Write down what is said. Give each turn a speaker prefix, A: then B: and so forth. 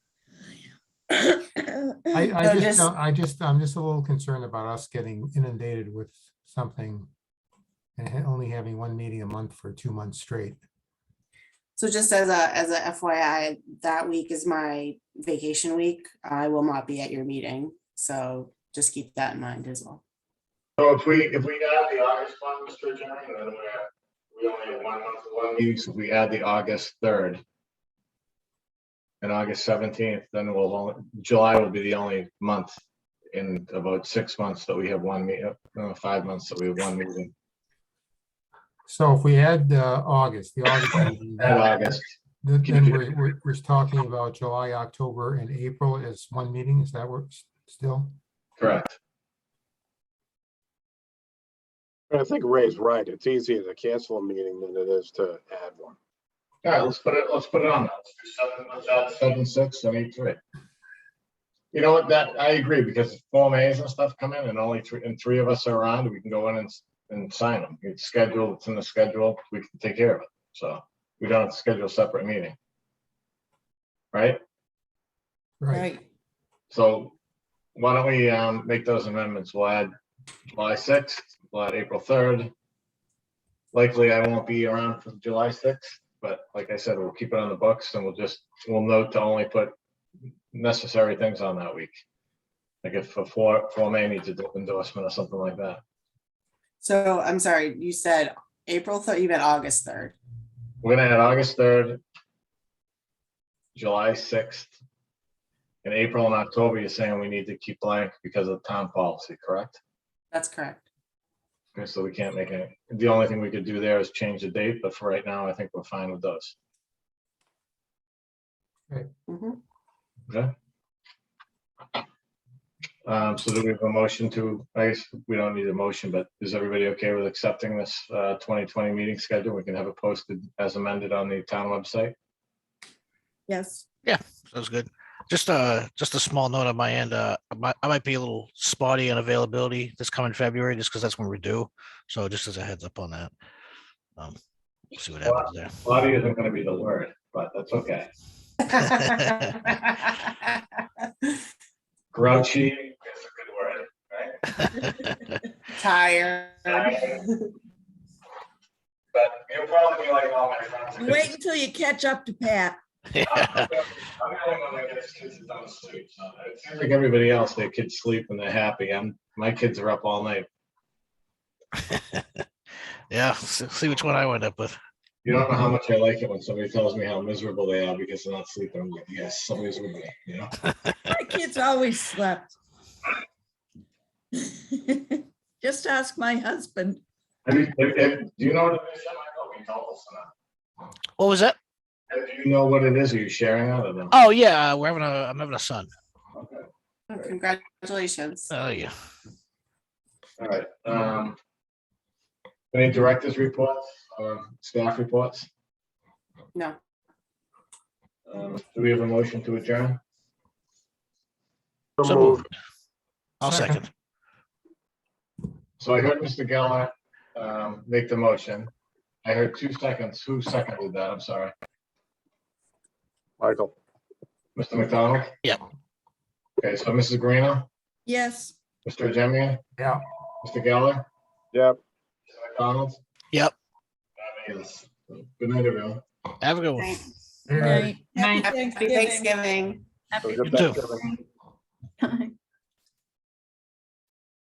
A: I,
B: So
A: I just,
B: just-
A: don't- I just, I'm just a little concerned about us getting inundated with something and ha- only having one meeting a month for two months straight.
B: So just as a, as a FYI, that week is my vacation week. I will not be at your meeting, so just keep that in mind as well.
C: So if we, if we add the August one, Mr. Chairman, then we, we only have one month of one meeting, so if we add the August third. And August seventeenth, then we'll, only July will be the only month in about six months that we have one meet, uh, five months that we have one meeting.
A: So if we add uh, August, the August. meeting,
C: Add
A: then-
C: August,
A: Then
C: Can you
A: then
C: do-
A: we're, we're, we're talking about July, October and April as one meeting. Is that works still?
C: correct.
D: I think Ray's right. It's easier to cancel a meeting than it is to add one.
C: All right, let's put it, let's put it on. that. Let's do seven, let's add seven, six, and eight, three. You know what, that, I agree, because if Form As and stuff come in and only three, and three of us are around, we can go in and, s- and sign them. It's scheduled, it's in the schedule, we can take care of it. So we don't have to schedule a separate meeting. Right?
A: Right.
C: So why don't we, um, make those amendments? We'll add July sixth, we'll add April third. Likely I won't be around for July sixth, but like I said, we'll keep it on the books and we'll just, we'll note to only put necessary things on that week. Like if a four, four may needs an endorsement or something like that.
B: So I'm sorry, you said April third, you meant August third.
C: We're gonna add August third, July sixth, and April and October, you're saying we need to keep blank because of town policy, correct?
B: That's correct.
C: Okay, so we can't make any, the only thing we could do there is change the date, but for right now, I think we're fine with those.
B: Mhm.
C: Okay? Um, so do we have a motion to, I guess we don't need a motion, but is everybody okay with accepting this uh twenty twenty meeting schedule? We can have it posted as amended on the town website.
B: Yes.
E: Sounds good. Just uh just a small note on my end. Uh, I might, I might be a little spotty on availability this coming February, just because that's when we're due. So just as a heads up on that. Um, we'll see what happens there.
C: Body isn't gonna be the word, but that's okay. Grouchy is a
B: Tired.
C: But you'll probably be like all my friends.
F: Wait until you catch up to Pat.
C: I'm the only one that gets kids that don't sleep, so It seems like everybody else, their kids sleep and they're happy. I'm, my kids are up all night.
E: Yeah, see see which one I wind up with.
C: You don't know how much I like it when somebody tells me how miserable they are because they're not sleeping. I'm like, yes, somebody's with me, you know?
F: My kids always slept. Just ask my husband.
C: Have you, have- have- do you know what it is? I might not be told, so.
E: What was that?
C: And Do you know what it is? Are you sharing out of them?
E: Oh yeah, uh, we're having a I'm having a son.
B: Congratulations.
E: Oh yeah.
C: All right. um, Any directors' reports or staff reports?
B: No.
C: Um, Do we have a motion to adjourn?
D: So
E: So
D: moved.
E: moved. I'll
A: Second.
E: second.
C: So I heard Mr. Geller um, make the motion. I heard two seconds. Who seconded that? I'm sorry.
D: Michael,
C: Mr. McDonald?
E: Yeah.
C: Okay, so Mrs. Greeno,
F: Yes.
C: Mr. Jemian,
A: Yeah.
C: Mr. Geller,
D: yep.
C: Mr. McDonald?
E: Yep.
C: Yes. Good night, everyone.
E: Have a good one.
B: Thanks.
F: Right. Happy
B: Happy Thanksgiving.
D: So good
E: You too.
D: Thanksgiving.